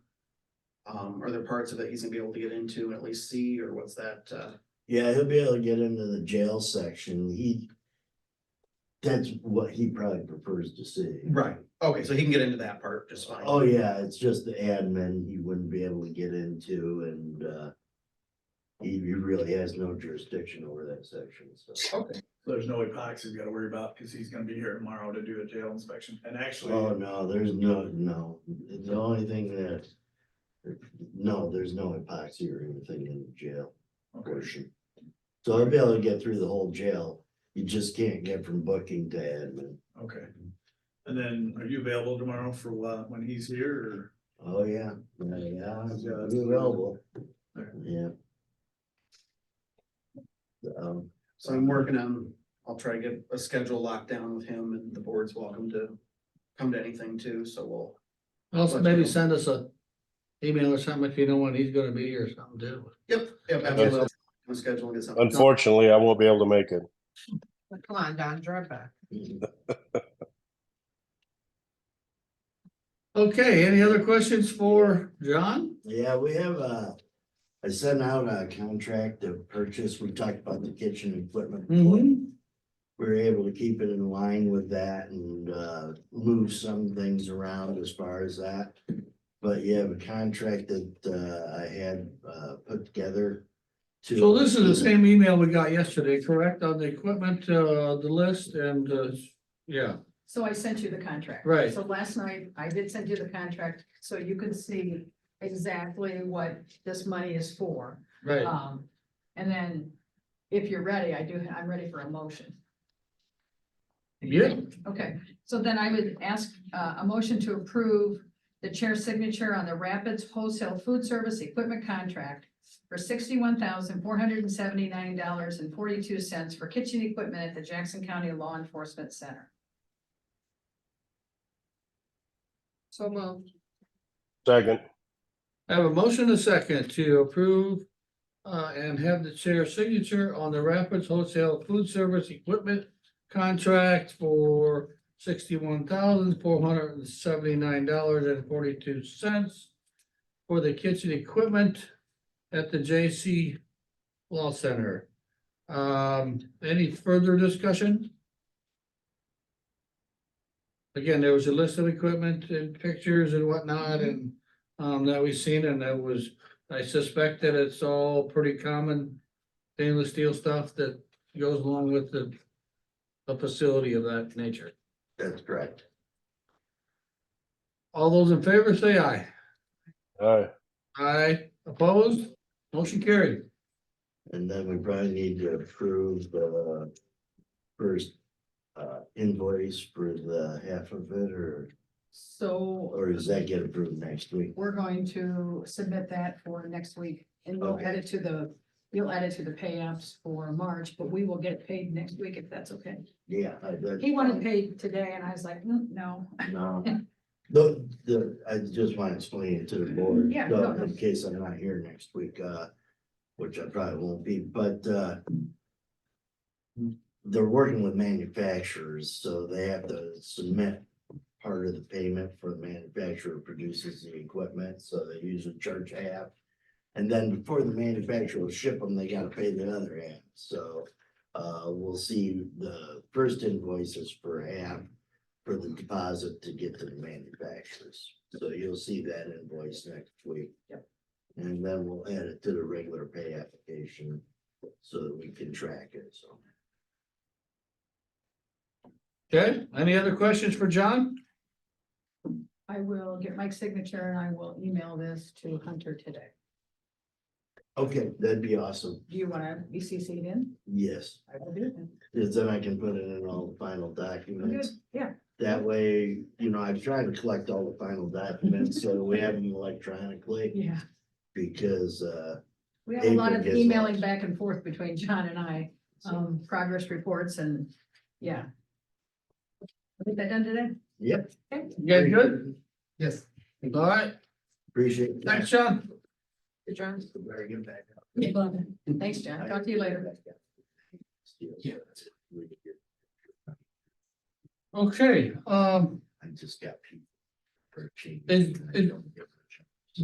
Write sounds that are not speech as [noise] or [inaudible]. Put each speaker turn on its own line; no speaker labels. Um, are there parts of it he's gonna be able to get into and at least see, or what's that, uh?
Yeah, he'll be able to get into the jail section. He. That's what he probably prefers to see.
Right. Okay, so he can get into that part just fine.
Oh, yeah, it's just the admin he wouldn't be able to get into and, uh. He, he really has no jurisdiction over that section, so.
Okay,
There's no epoxy we gotta worry about, cause he's gonna be here tomorrow to do a jail inspection, and
Oh,
actually,
no, there's no, no, the only thing that. No, there's no epoxy or anything in the jail
okay,
portion. So I'll be able to get through the whole jail. You just can't get from booking to admin.
okay. And then, are you available tomorrow for, uh, when he's here,
Oh, yeah, yeah, yeah, it's
Yeah, that's-
available,
Okay.
yeah. Um,
so I'm working on, I'll try to get a schedule locked down with him and the board's welcome to come to anything too, so we'll.
Also,
Let you
maybe
know.
send us a email or something if you know when he's gonna be here or something too.
Yep, yep, absolutely. I'll I'll schedule and get something.
Unfortunately, I won't be able to make it.
Come on, Don, drive back.
Okay, any other questions for John?
yeah, we have a, I sent out a contract of purchase, we talked about the kitchen equipment. before.
Mm-hmm.
We were able to keep it in line with that and, uh, move some things around as far as that. But you have a contract that, uh, I had, uh, put together. to-
So this is the same email we got yesterday, correct, on the equipment, uh, the list and, uh, yeah,
So I sent you the contract.
Right.
So last night, I did send you the contract, so you can see exactly what this money is for.
right.
Um, and then if you're ready, I do, I'm ready for a motion.
Yeah,
Okay, so then I would ask uh, a motion to approve the chair's signature on the Rapids Wholesale Food Service Equipment Contract for sixty-one thousand, four hundred and seventy-nine dollars and forty-two cents for kitchen equipment at the Jackson County Law Enforcement Center. So moved.
Second,
I have a motion and a second to approve uh, and have the chair signature on the Rapids Wholesale Food Service Equipment contract for sixty-one thousand, four hundred and seventy-nine dollars and forty-two cents for the kitchen equipment at the J.C. Law Center. Um, any further discussion? Again, there was a list of equipment and pictures and whatnot and um, that we've seen, and that was, I suspect that it's all pretty common stainless steel stuff that goes along with the a facility of that nature.
That's correct.
All those in favor say aye.
aye.
Aye, opposed, motion carried.
And then we probably need to approve the first uh invoice for the half of it or,
So
or does that get approved next week?
we're going to submit that for next week and we'll
Okay.
add it to the, you'll add it to the pay apps for March, but we will get paid next week if that's okay.
Yeah. I- that-
He wanted paid today and I was like, "Mm, no.
No. [laughs] The, the, I just want to explain it to the board.
Yeah,
so
no.
In case I'm not here next week, uh, which I probably won't be, but, uh. They're working with manufacturers, so they have to submit part of the payment for the manufacturer produces the equipment, so they usually charge half. And then before the manufacturer will ship them, they gotta pay the other half, so, uh, we'll see the first invoices for half for the deposit to get to the manufacturers. So you'll see that invoice next week.
Yep.
And then we'll add it to the regular pay application so that we can track it, so.
Okay, any other questions for John?
I will get Mike's signature and I will email this to Hunter today.
Okay, that'd be awesome.
Do you want to be CC'd in?
Yes,
I will do. it.
'cause then I can put it in all the final
Good,
documents.
yeah.
That way, you know, I've tried to collect all the final documents, so we have them electronically
Yeah.
because, uh,
We have a lot of
April gets
emailing
lost.
back and forth between John and I, um, progress reports and, yeah. I think that done today.
yep.
Okay.
You guys good? Yes. All right,
Appreciate
thanks,
that.
John.
Good, John.
Very good backup.
Thanks, John. Talk to you later.
Yeah.
Okay, um,
I just got people. for change.
Is- is-